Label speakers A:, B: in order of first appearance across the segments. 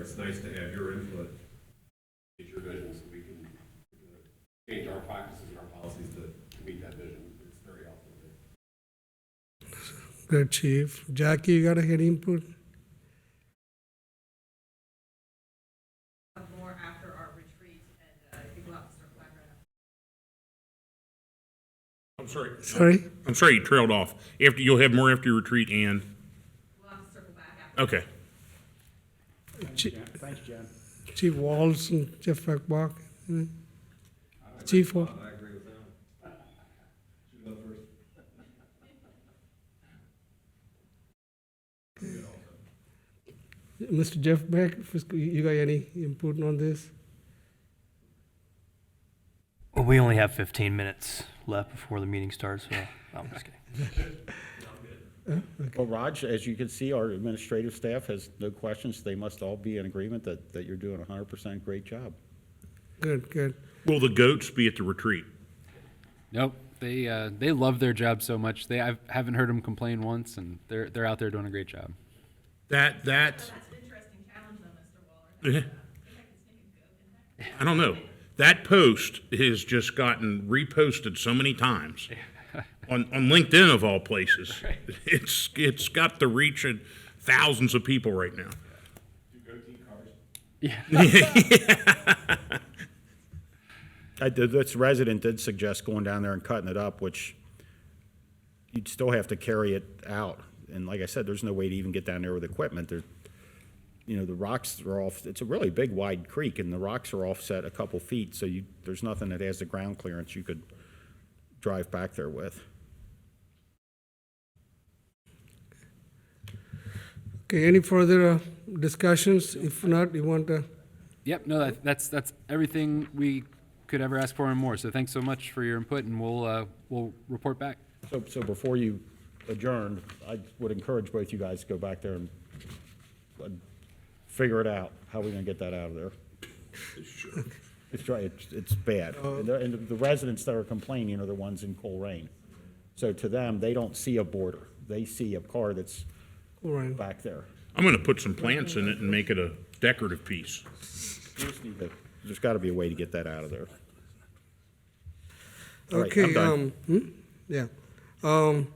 A: it's nice to have your input,
B: get your vision so we can we can change our practices and our policies to to meet that vision. It's very helpful.
C: Good, Chief. Jackie, you got any input?
D: have more after our retreat and uh, people have to start collaborating.
E: I'm sorry.
C: Sorry?
E: I'm sorry you trailed off. After you'll have more after your retreat and
D: We'll have to circle back after.
E: okay.
C: Chi-
F: Thanks, John.
C: Chief Walls and Jeff Beckbach? Chief, Wa-
A: I agree with that. Should go first.
C: Mr. Jeff Beck, Fiscal- you got any input on this?
G: Well, we only have 15 minutes left before the meeting starts, so no, I'm just kidding.
F: Well, Raj, as you can see, our administrative staff has no questions. They must all be in agreement that, that you're doing a hundred percent great job.
C: Good, good.
E: Will the goats be at the retreat?
H: Nope. They uh, they love their job so much. They I haven't heard them complain once, and they're they're out there doing a great job.
E: That that eh,
D: That's an interesting challenge though, Mr. Waller.
E: I don't know. That post has just gotten reposted so many times on on LinkedIn of all places. It's it's got the reach of thousands of people right now.
F: I did, this resident did suggest going down there and cutting it up, which you'd still have to carry it out. And like I said, there's no way to even get down there with equipment. There, you know, the rocks are off, it's a really big wide creek and the rocks are offset a couple feet, so you, there's nothing that has the ground clearance you could drive back there with.
C: Okay, any further uh, discussions? If not, you want to,
H: Yep. No, that, that's that's everything we could ever ask for and more. So thanks so much for your input, and we'll uh, we'll report back.
F: So, so before you adjourn, I would encourage both you guys to go back there and uh, figure it out, how we are gonna get that out of there? It's right, it's, it's bad. And the, and the residents that are complaining are the ones in Colerain. So to them, they don't see a border. They see a car that's
C: all right.
F: back there.
E: I'm going to put some plants in it and make it a decorative piece.
F: Just need to- There's gotta be a way to get that out of there. All right, I'm
C: Okay,
F: done.
C: um, hmm? yeah. Um,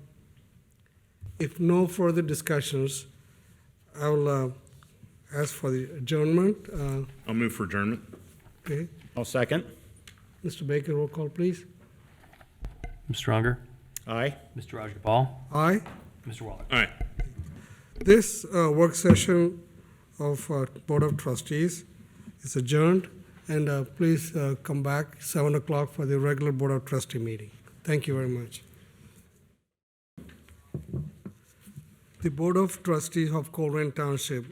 C: if no further discussions, I will, uh, ask for the adjournment, uh,
E: I'll move for adjournment.
C: okay.
F: I'll second.
C: Mr. Baker, roll call, please.
G: Mr. Unger,
F: Aye?
G: Mr. Rajagopal,
C: Aye.
G: Mr. Waller.
E: All right.
C: This uh, work session of uh, Board of Trustees is adjourned, and uh, please uh, come back 7 o'clock for the regular Board of Trustee meeting. Thank you very much. The Board of Trustees of Colerain Township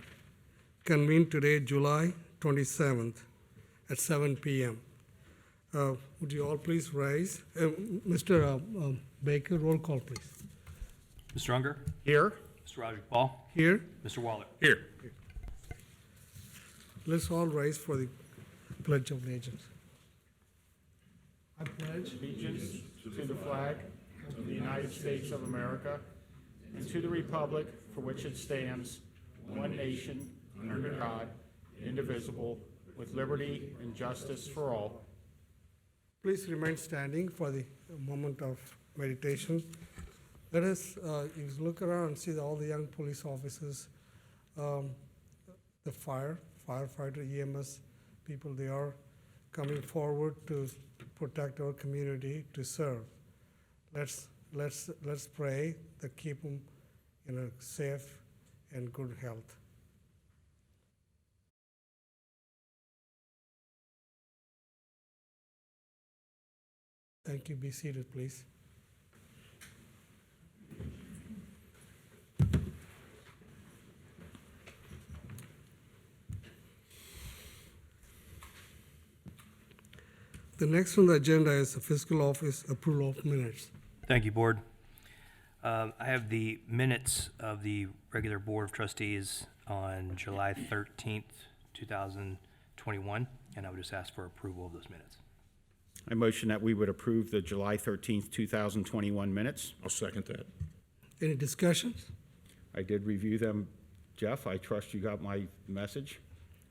C: convened today, July 27th, at 7 p.m. Uh, Would you all please rise? Uh, Mr. uh, um, Baker, roll call, please.
G: Mr. Unger,
F: Here?
G: Mr. Rajagopal,
C: Here.
G: Mr. Waller.
E: Here.
C: Let's all rise for the Pledge of Allegiance. I pledge
I: to the flag of the United States of America and to the republic for which it stands, one nation, under God, indivisible, with liberty and justice for all.
C: Please remain standing for the moment of meditation. Let us, uh, if you look around and see all the young police officers, um, the fire, firefighter, EMS people, they are coming forward to protect our community, to serve. Let's, let's, let's pray that keep them in a safe and good health. Thank you. Be seated, please. The next on the agenda is the fiscal office approval of minutes.
G: Thank you, Board. Um, I have the minutes of the regular Board of Trustees on July 13th, 2021, and I would just ask for approval of those minutes.
F: I motion that we would approve the July thirteenth, two thousand twenty-one minutes.
E: I'll second that.
C: Any discussions?
F: I did review them. Jeff, I trust you got my message?